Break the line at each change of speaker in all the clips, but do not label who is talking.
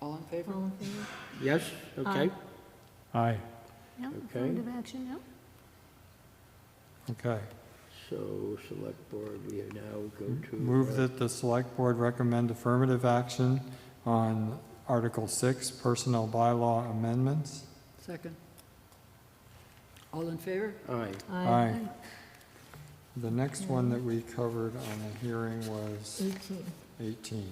All in favor?
All in favor?
Yes,
Um,
okay,
Aye,
Yeah,
Okay.
affirmative action, yeah.
okay.
so select board, we now go to.
Move
uh,
that the select board recommend affirmative action on Article 6, Personnel Bylaw Amendments.
Second. All in favor?
Aye,
Aye. The next one that we covered on the hearing was
18.
18,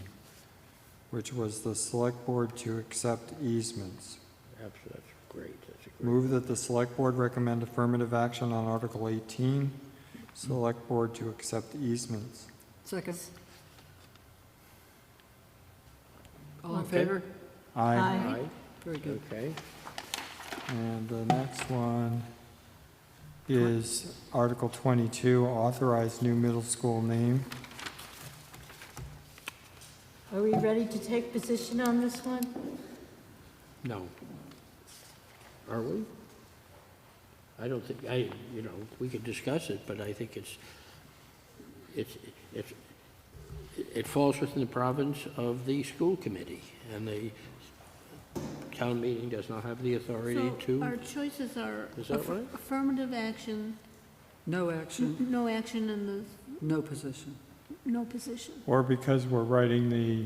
which was the select board to accept easements.
that's, that's great, that's a great.
Move that the select board recommend affirmative action on Article 18, select board to accept easements.
Second. All in
Okay.
favor?
Aye.
Aye.
Very good.
Okay,
And the next one is Article 22, authorize new middle school name.
Are we ready to take position on this one?
Mm-hmm. no. Are we? I don't think, I, you know, we could discuss it, but I think it's, it's, it's, it falls within the province of the school committee, and the town meeting does not have the authority
So
to,
our choices are
Is that
aff-
right?
affirmative action,
No
n-
action,
no action and the,
no position.
no position.
Or because we're writing the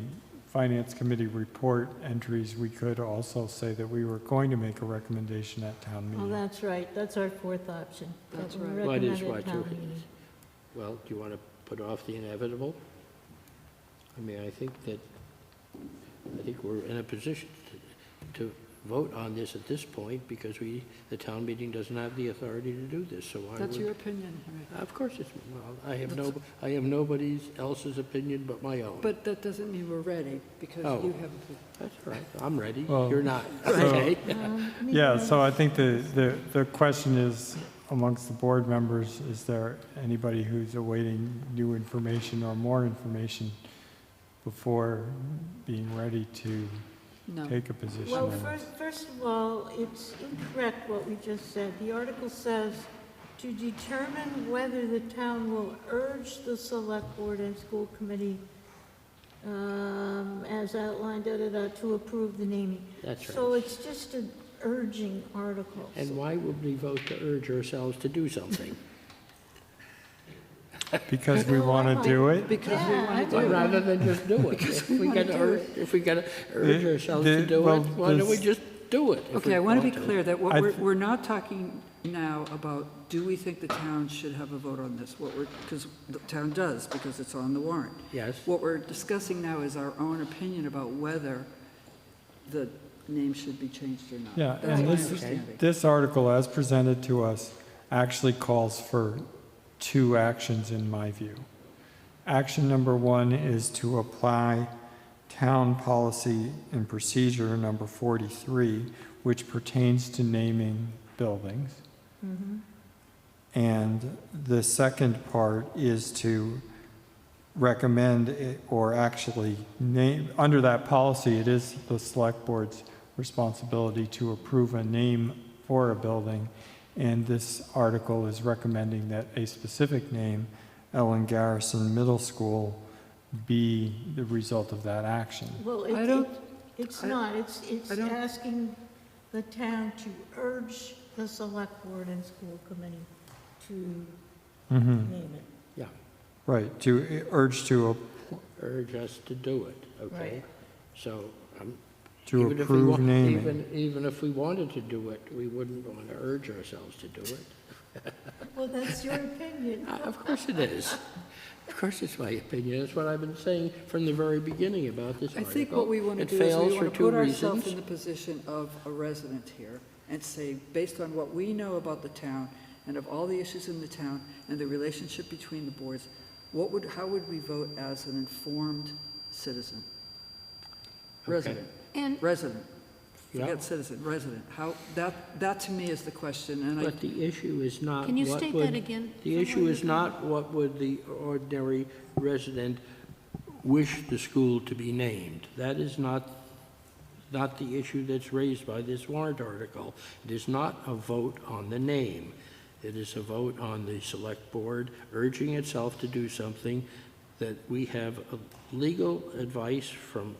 Finance Committee report entries, we could also say that we were going to make a recommendation at town
Oh,
meeting.
that's right, that's our fourth option. that
That's
we
right.
Well, it is
recommended
what you-
town meeting.
well, do you want to put off the inevitable? I mean, I think that, I think we're in a position to, to vote on this at this point, because we, the town meeting doesn't have the authority to do this, so I would.
That's your opinion, Henry.
Of course it's, well, I have no, I have nobody's else's opinion but my own.
But that doesn't mean we're ready, because
Oh.
you have, a-
That's all right, I'm ready,
Well,
you're not,
so-
okay?
Um, me
Yeah,
too.
so I think the, the, the question is amongst the board members, is there anybody who's awaiting new information or more information before being ready to
no.
take a position
Well,
on this?
first, first of all, it's incorrect what we just said. The article says, "To determine whether the town will urge the select board and school committee, um, as outlined, da-da-da, to approve the naming."
That's
So
right.
it's just an urging article.
And why would we vote to urge ourselves to do something?
Because we want to do it?
Because we
Yeah, I
want to
Well,
do it.
Rather than just do it. If we
wanna
gotta
do
urge, if we gotta urge
The-
ourselves to
the-
do
well,
it, why don't we
this-
just do it? if
Okay,
we
I want to
want
be clear that what
I
we're,
th-
we're not talking now about, do we think the town should have a vote on this? What we're, because the town does, because it's on the warrant.
Yes,
What we're discussing now is our own opinion about whether the name should be changed or not.
Yeah,
That's
and
my
this-
understanding.
This article, as presented to us, actually calls for two actions in my view. Action number one is to apply town policy and procedure number 43, which pertains to naming buildings. And the second part is to recommend it- or actually name, under that policy, it is the select board's responsibility to approve a name for a building. And this article is recommending that a specific name, Ellen Garrison Middle School, be the result of that action.
Well, it-
I don't-
it- it's
I-
not, it's, it's
I don't-
asking the town to urge the select board and school committee to
Mm-hmm.
Mhm.
name it.
yeah,
Right, to urge to,
urge us to do it, okay? So, um,
to
even if we
approve
want,
naming.
even, even if we wanted to do it, we wouldn't want to urge ourselves to do it.
Well, that's your opinion.
Uh, Of course it is. Of course it's my opinion. That's what I've been saying from the very beginning about this
I
article.
think what we want to
It
do is
fails
we
for
want to
two
put ourselves in
reasons.
the position of a resident here and say, based on what we know about the town and of all the issues in the town and the relationship between the boards, what would, how would we vote as an informed citizen? Resident,
And
resident,
Yeah.
forget citizen, resident. How, that, that to me is the question, and I,
But the issue is not
Can you
what
state
would-
that again?
The issue is not what would the ordinary resident wish the school to be named. That is not, not the issue that's raised by this warrant article. It is not a vote on the name. It is a vote on the select board urging itself to do something that we have uh, legal advice from